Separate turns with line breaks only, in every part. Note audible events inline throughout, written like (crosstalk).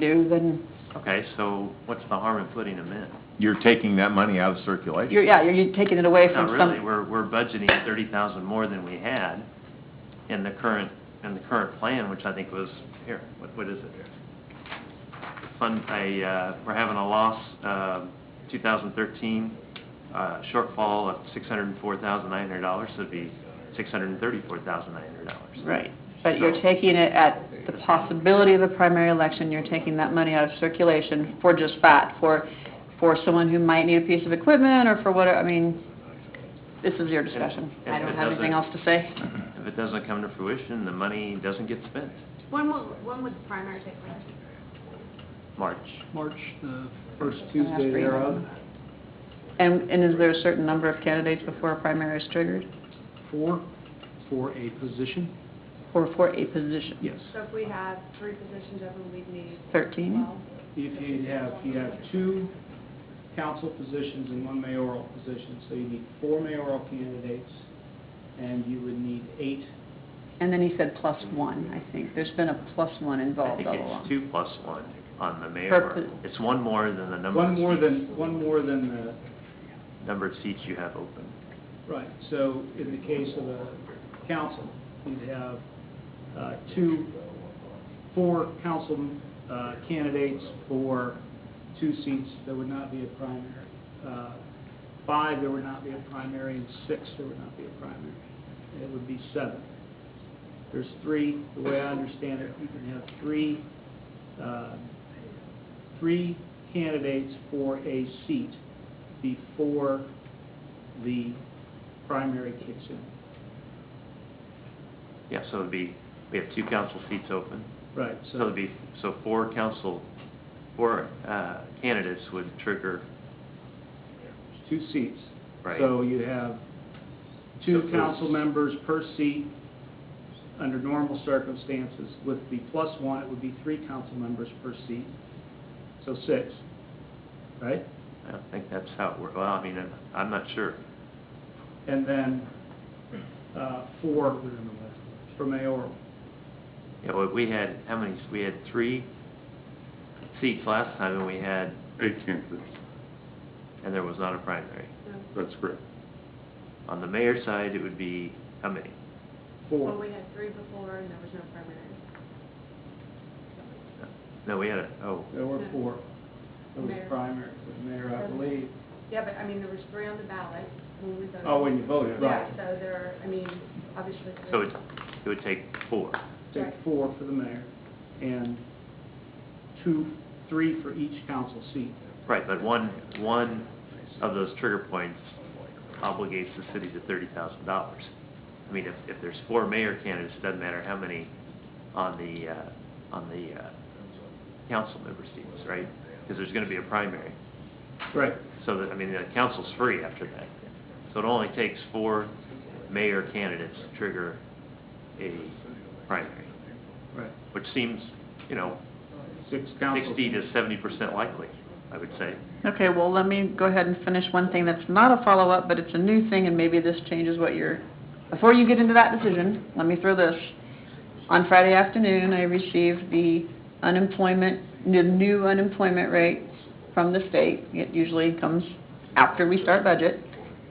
do, then
Okay, so what's the harm in putting them in?
You're taking that money out of circulation.
you're, yeah, you're taking it away
Not
from
really,
some,
we're, we're budgeting thirty thousand more than we had in the current, in the current plan, which I think was, here, what, what is it? Fund, a, uh, we're having a loss, uh, two thousand thirteen, uh, shortfall of six hundred and four thousand nine hundred dollars, so it'd be six hundred and thirty-four thousand nine hundred dollars.
right. But you're
So-
taking it at the possibility of a primary election, you're taking that money out of circulation for just that, for, for someone who might need a piece of equipment or for what, I mean, this is your discussion.
And-
I
and
don't
it
have anything else
doesn't-
to say.
If it doesn't come to fruition, the money doesn't get spent,
When will, when would the primary take place?
March.
March, the first
Can I ask
Tuesday
for your
thereof.
vote? And, and is there a certain number of candidates before a primary is triggered?
Four, for a position?
Or for a position?
Yes.
So if we have three positions open, we'd need
Thirteen?
twelve?
If you have, you have two council positions and one mayoral position, so you need four mayoral candidates, and you would need eight.
And then he said plus one, I think. There's been a plus one
I
involved
think
all
it's
along.
two plus one on the
Per
mayor.
po-
It's one more than the number.
One
of
more
seats-
than, one more than the,
Number of seats you have open.
right, so in the case of a council, you'd have uh, two, four council uh, candidates for two seats, there would not be a primary. Uh, Five, there would not be a primary, and six, there would not be a primary. It would be seven. There's three, the way I understand it, you can have three, uh, three candidates for a seat before the primary kicks in.
Yeah, so it'd be, we have two council seats open.
Right,
So it'd be, so four council, four uh, candidates would trigger,
two seats.
Right.
So you have
So
two
it's-
council members per seat under normal circumstances. With the plus one, it would be three council members per seat, so six, right?
I don't think that's how it works. Well, I mean, I'm- I'm not sure.
And then uh, four for mayoral.
Yeah, well, we had, how many, we had three seats last time and we had,
Eight candidates,
and there was not a primary.
No.
that's correct.
On the mayor's side, it would be, how many?
Well,
Four.
we had three before and there was no primary.
No, we had a, oh,
There were four. There was
Mayor.
a primary for the mayor, I believe.
Yeah, but I mean, there was three on the ballot when we voted.
Oh, when you voted,
Yeah,
right.
so there, I mean, obviously. three.
so it it would take four.
Take
Right.
four for the mayor and two, three for each council seat.
Right, but one, one of those trigger points obligates the city to thirty thousand dollars. I mean, if, if there's four mayor candidates, it doesn't matter how many on the, uh, on the, uh, council member seats, right? Because there's gonna be a primary.
Right.
So that, I mean, the council's free after that. So it only takes four mayor candidates to trigger a primary,
Right.
which seems, you know,
Six council.
sixty to seventy percent likely, I would say.
Okay, well, let me go ahead and finish one thing that's not a follow-up, but it's a new thing, and maybe this changes what you're, before you get into that decision, let me throw this. On Friday afternoon, I received the unemployment, the new unemployment rate from the state. It usually comes after we start budget,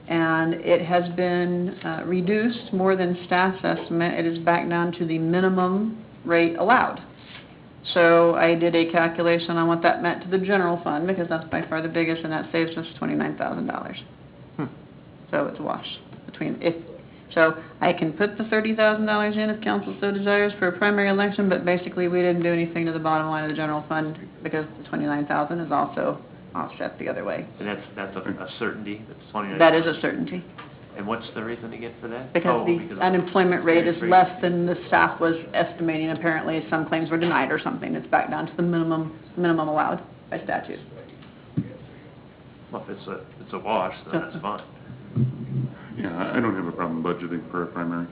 and it has been uh, reduced more than staff's estimate. It is back down to the minimum rate allowed. So I did a calculation on what that meant to the general fund, because that's by far the biggest, and that saves us twenty-nine thousand dollars. So it's a wash between, if, so I can put the thirty thousand dollars in if council so desires for a primary election, but basically, we didn't do anything to the bottom line of the general fund, because the twenty-nine thousand is also offset the other way.
And that's, that's a a certainty, that's twenty-nine.
That is a certainty,
And what's the reason again for that?
because
Oh,
the
of-
unemployment rate is
Very great.
less than the staff was estimating, apparently, some claims were denied or something, it's back down to the minimum, minimum allowed by statute.
Well, if it's a, it's a wash,
(laughs)
then that's fine.
Yeah, I- I don't have a problem budgeting for a primary.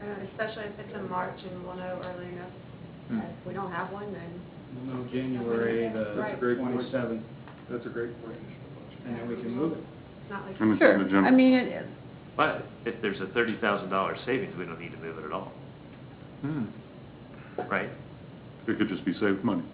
Uh, Especially if it's in March and we'll know early enough.
Hmm.
If we don't have one, then
We'll know January
That's a
the
great point.
twenty-seventh,
That's a great point.
and then we can move it.
it's not like.
And it's in
Sure,
the general.
I mean, it-
But if there's a thirty thousand dollar savings, we don't need to move it at all,
Hmm,
right?
It could just be saved money.